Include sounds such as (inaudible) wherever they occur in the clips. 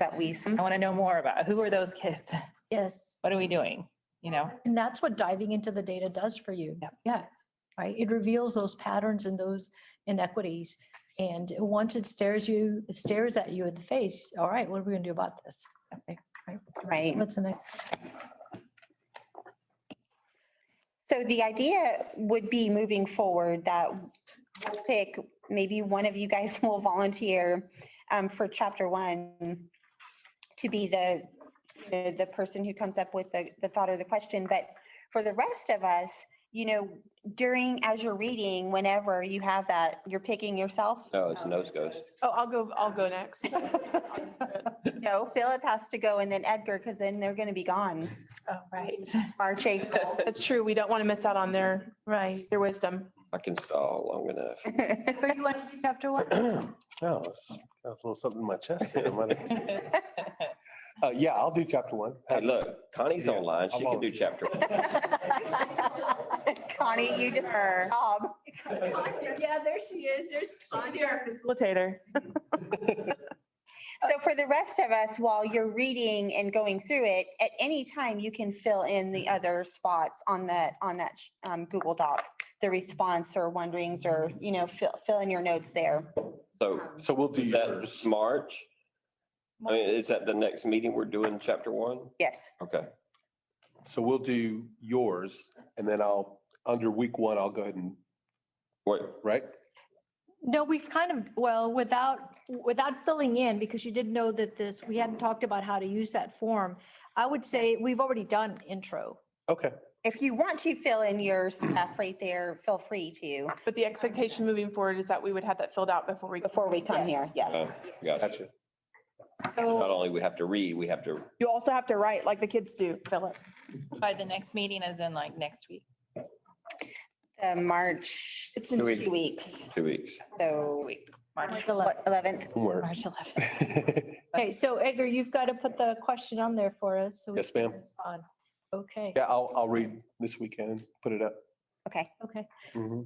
that we, I want to know more about who are those kids? (laughs) Yes. What are we doing? You know, And that's what diving into the data does for you. Yep. Yeah, right. It reveals those patterns and those inequities. And once it stares you, it stares at you in the face, all right, what are we gonna do about this? Okay, what's- Right. What's the next? so the idea would be moving forward that we'll pick, maybe one of you guys (laughs) will volunteer um, for chapter one to be the, you know, the person who comes up with the, the thought or the question. But for the rest of us, you know, during, as you're reading, whenever you have that, you're picking yourself. No, it's nose goes. Oh, I'll go, I'll (laughs) go next. No, (laughs) Philip has to go and then Edgar, because then they're going to be gone. oh, right. March, April. (laughs) That's true. We don't want to miss out on their, Right. their wisdom. I can stall long enough. Or you want to do chapter one? No, it's got a little something in my chest. here. I'm gonna- (laughs) Uh, yeah, I'll do chapter one. Hey, look, Connie's Yeah, online. She I'll can do volunteer. chapter. one. Connie, you just, job. Yeah, there she is. There's Connie. Facilitator. So for the rest of us, while you're reading and going through it, at any time, you can fill in the other spots on that, on that um, Google Doc, the response or wonderings or, you know, fill, fill in your notes there. So So we'll do is that yours. March? I mean, is that the next meeting we're doing chapter one? Yes. Okay. So we'll do yours and then I'll, under week one, I'll go ahead and, Wait, right? (clears throat) No, we've kind of, well, without, without filling in, because you didn't know that this, we hadn't talked about how to use that form. I would say we've already done intro. Okay. If you want to fill in your stuff right there, feel free to, But the expectation moving forward is that we would have that filled out before we. before we come here. Yes. oh, gotcha. Gotcha. So So Not only we have to read, we have to, you also have to write like the kids do, Philip. By the next meeting as in like next week. The March, It's Two in weeks. two weeks. two weeks. So Week, March, March 11th. what, 11th? Homework. March 11th. Okay, so Edgar, you've got to put the question on there for us. so we Yes, can ma'am. respond. Okay, (laughs) Yeah, I'll, I'll read this weekend, put it up. Okay. okay. Mm-hmm.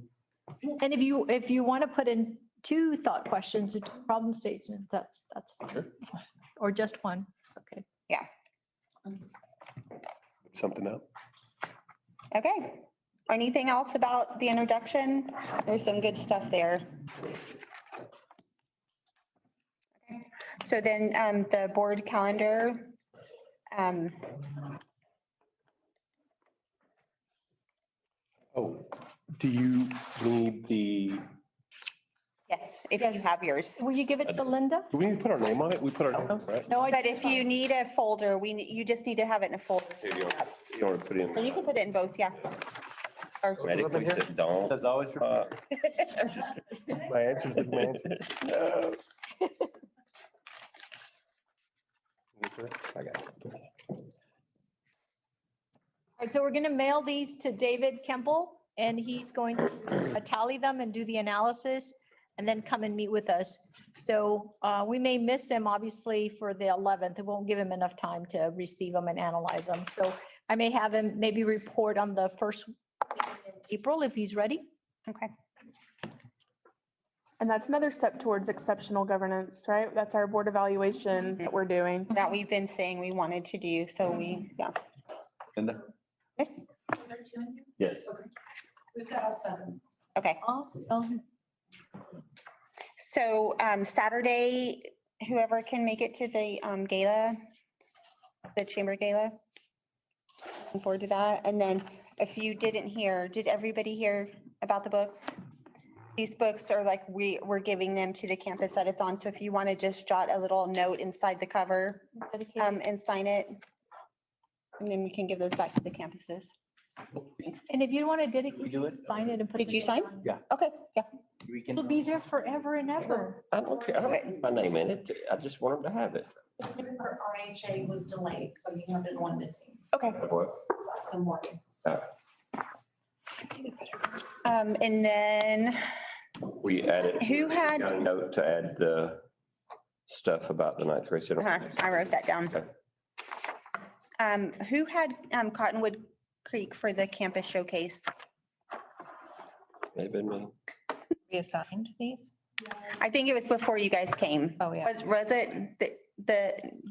Mhm. And if you, if you want to put in two thought questions or two problem statements, that's, that's, fine. Sure. or just one, okay. Something up. Okay. Anything else about the introduction? There's some good stuff there. So then um, the board calendar. um, Oh, do you need the, Yes, if you Yes. have yours. Will you give it to Linda? do we need to put our name on it? We put our name, on it, (laughs) right? No, I. But if you need a folder, we, ne- you just need to have it in a folder. Here you are. You want to put Or you in? can put it in both, yeah. Medically sit down. As always. My answer's with my answer. I got it. All right, so we're going to mail these to David Kemple and he's going to uh, tally them and do the analysis and then come and meet with us. So uh, we may miss him, obviously, for the 11th. It won't give him enough time to receive them and analyze them. So I may have him maybe report on the first week in April if he's ready. Okay. And that's another step towards exceptional governance, right? That's our board evaluation that we're doing. That we've been saying we wanted to do, so we, yeah. Yes. We've got all seven. Okay. Awesome. So um, Saturday, whoever can make it to the um, gala, the chamber gala. Looking forward to that. And then if you didn't hear, did everybody hear about the books? These books are like, we, we're giving them to the campus that it's on. So if you want to just jot a little note inside the cover um, and sign it. And then we can give those back to the campuses. Thanks. And if you want to dedicate, sign it and put. Did the you name sign? on it. Okay, yeah. It'll be there forever and ever. I don't care. I don't need my name in it. I just want them to have it. Her RHA was delayed, so you have been one missing. Okay. I'm working. Um, And then We added. Who had- Got a note to add the stuff about the ninth grade. center. Uh-huh, I wrote that down. Okay. Um, who had um Cottonwood Creek for the campus showcase? Maybe me. We assigned these? I think it was before you guys came. Oh, yeah. Was, was it the, the